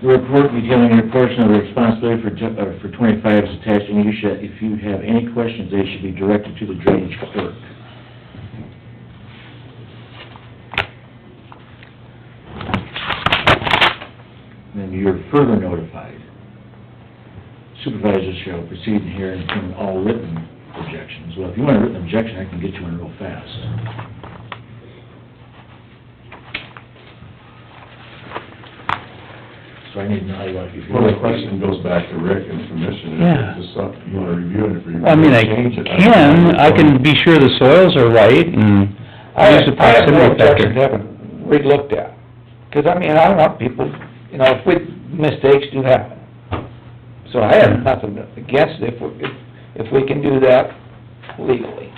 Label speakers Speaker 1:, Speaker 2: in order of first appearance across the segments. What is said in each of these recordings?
Speaker 1: The report detailing your portion of the responsibility for, ju- uh, for twenty-five is attached, and you should, if you have any questions, they should be directed to the drainage clerk. Then you're further notified. Supervisors shall proceed in here and turn all written objections. Well, if you want a written objection, I can get you one real fast. So I need to know how you want to...
Speaker 2: Well, the question goes back to Rick and commission,
Speaker 3: Yeah.
Speaker 2: if it's just something you wanna review and if you.
Speaker 3: Well, I mean, I
Speaker 2: change it,
Speaker 3: can, I can be sure the soils are right and
Speaker 4: I
Speaker 3: use
Speaker 4: have,
Speaker 3: the
Speaker 4: I have
Speaker 3: proximity
Speaker 4: no objection to
Speaker 3: factor.
Speaker 4: having re-looked at, 'cause I mean, I don't want people, you know, if we, mistakes do happen. So I have
Speaker 3: Mm-hmm.
Speaker 4: nothing against it if, we- if, if we can do that legally.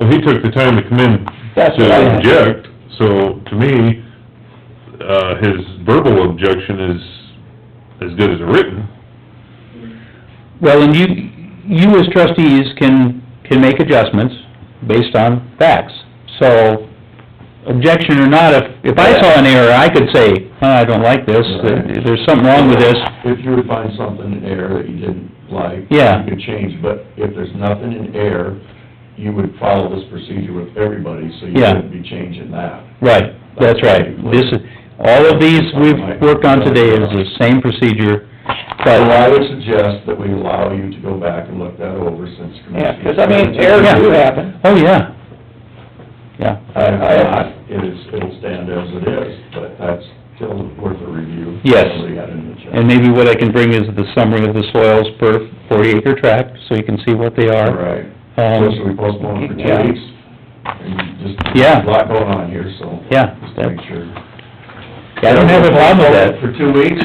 Speaker 5: Well, he took the time to come in
Speaker 4: That's what I-
Speaker 5: to object, so to me, uh, his verbal objection is as good as a written.
Speaker 3: Well, and you, you as trustees can, can make adjustments based on facts. So, objection or not, if, if I saw an error, I could say, "Huh, I don't like this,
Speaker 2: Right.
Speaker 3: there's something wrong with this.
Speaker 2: If you would find something in air that you didn't like.
Speaker 3: Yeah.
Speaker 2: You could change, but if there's nothing in air, you would follow this procedure with everybody, so you
Speaker 3: Yeah.
Speaker 2: wouldn't be changing that.
Speaker 3: Right, that's right. This is, all of these we've worked on today is the same procedure,
Speaker 2: So I
Speaker 3: but,
Speaker 2: would suggest that we allow you to go back and look that over since
Speaker 4: Yeah,
Speaker 2: commission.
Speaker 4: 'cause I mean, errors do happen.
Speaker 3: oh, yeah. Yeah,
Speaker 2: I, I, it is, it'll stand as it is, but that's still worth a review.
Speaker 3: Yes.
Speaker 2: Somebody had it in the chat.
Speaker 3: and maybe what I can bring is the summary of the soils per forty acre tract, so you can see what they
Speaker 2: All
Speaker 3: are.
Speaker 2: right. So should
Speaker 3: Um,
Speaker 2: we postpone it for two
Speaker 4: Yeah.
Speaker 2: weeks? And just,
Speaker 3: Yeah.
Speaker 2: a lot going on here, so.
Speaker 3: Yeah,
Speaker 2: Just
Speaker 3: that-
Speaker 2: make sure.
Speaker 3: I don't have a problem with that.
Speaker 2: For two weeks?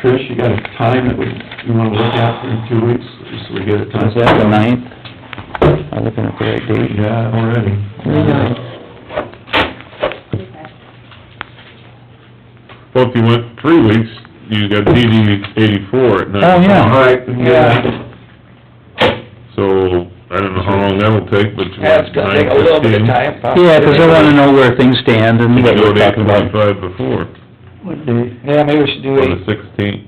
Speaker 2: Trish, you got a time that we, you wanna look at for two weeks, just so we get a time?
Speaker 3: Is that the ninth? I'm looking at the right date.
Speaker 2: Yeah, already.
Speaker 5: Well, if you went three weeks, you got DD eighty-four at nine.
Speaker 3: Oh, yeah.
Speaker 2: All right, we can get it.
Speaker 5: So, I don't know how long that'll take, but you
Speaker 4: That's
Speaker 5: went
Speaker 4: gonna take a
Speaker 5: nine
Speaker 4: little bit
Speaker 5: fifteen.
Speaker 4: of time. probably.
Speaker 3: Yeah, 'cause I wanna know where things stand and
Speaker 5: You
Speaker 3: what
Speaker 5: go
Speaker 3: we're
Speaker 5: to eight
Speaker 3: talking about.
Speaker 5: twenty-five before,
Speaker 4: Yeah, maybe we should do
Speaker 5: on the
Speaker 4: eight.
Speaker 5: sixteenth.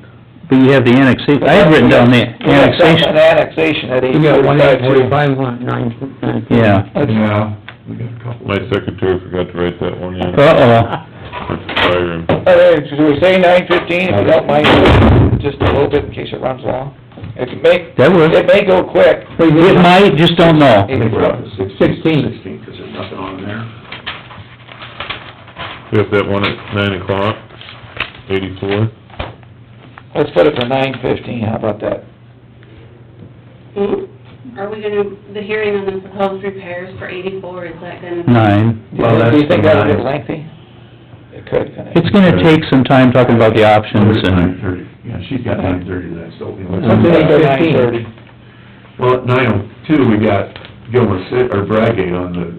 Speaker 3: But you have the annexation, I had written down the
Speaker 4: We have an
Speaker 3: annexation,
Speaker 4: annexation at eight
Speaker 6: You got one eight
Speaker 4: forty-five.
Speaker 6: forty-five, one nine, nine.
Speaker 3: yeah.
Speaker 2: Yeah, we got a couple.
Speaker 5: My secretary forgot to write that one in.
Speaker 3: Uh-oh,
Speaker 5: That's fire and-
Speaker 4: All right, should Oh, we say nine fifteen, if you don't mind, just a little bit in case it runs long? It can make,
Speaker 3: that works.
Speaker 4: it may go quick.
Speaker 3: It might, just don't know.
Speaker 2: I think we're up to sixteen.
Speaker 6: Sixteen.
Speaker 2: Sixteen, 'cause there's nothing on there.
Speaker 5: We have that one at nine o'clock, eighty-four.
Speaker 4: Let's put it for nine fifteen, how about that?
Speaker 7: Hmm? Are we gonna, the hearing on the proposed repairs for eighty-four, is that gonna? be-
Speaker 3: Nine.
Speaker 4: Do you think- do you think that'll get lengthy? It could, couldn't
Speaker 3: It's
Speaker 4: it?
Speaker 3: gonna take some time talking about the options
Speaker 2: Nine
Speaker 3: and,
Speaker 2: thirty, yeah, she's got nine thirty next, so. we can-
Speaker 3: Something like
Speaker 4: Nine thirty.
Speaker 2: Well, at nine oh two, we got Gilmer City, or Bradgate on the,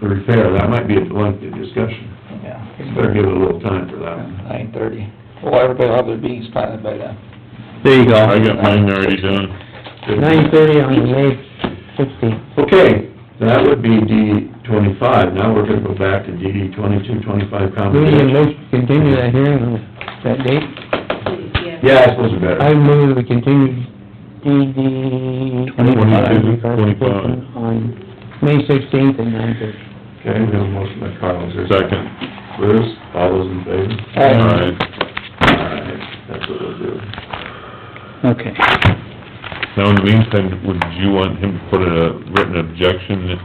Speaker 2: the repair, that might be a lengthy discussion.
Speaker 4: Yeah,
Speaker 2: Better give it a little time for that one.
Speaker 4: nine thirty. Well, everybody will have their beans planted by then.
Speaker 3: there you
Speaker 5: I
Speaker 3: go.
Speaker 5: got mine already done.
Speaker 6: Nine thirty on May sixteenth.
Speaker 2: Okay, that would be D twenty-five, now we're gonna go back to DD twenty-two, twenty-five
Speaker 6: We need a
Speaker 2: conversation.
Speaker 6: motion to continue that hearing on that date.
Speaker 7: Yeah.
Speaker 2: Yeah, I suppose we better.
Speaker 6: I move we continue DD...
Speaker 5: Twenty-two, twenty-five.
Speaker 6: On May sixteenth at nine thirty.
Speaker 2: Okay, we have a motion by Carl, is there a
Speaker 5: Second.
Speaker 2: Bruce, all those in favor?
Speaker 5: Alright,
Speaker 2: All right, that's what we'll do.
Speaker 3: Okay.
Speaker 5: now in the meantime, would you want him to put a written objection,
Speaker 7: Yeah,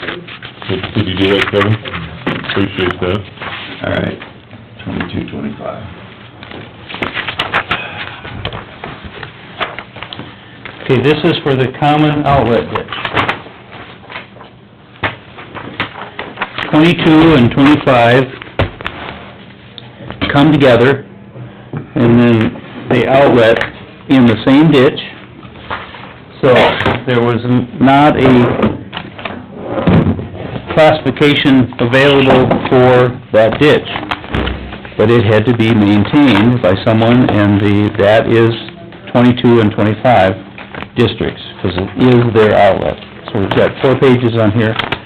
Speaker 7: please.
Speaker 5: Did- did you do that, Kevin? Appreciate that.
Speaker 2: All right, twenty-two, twenty-five.
Speaker 3: Okay, this is for the common outlet ditch. Twenty-two and twenty-five come together, and then the outlet in the same ditch. So, there was not a classification available for that ditch, but it had to be maintained by someone, and the, that is twenty-two and twenty-five districts, because it is their outlet. So we've got four pages on here.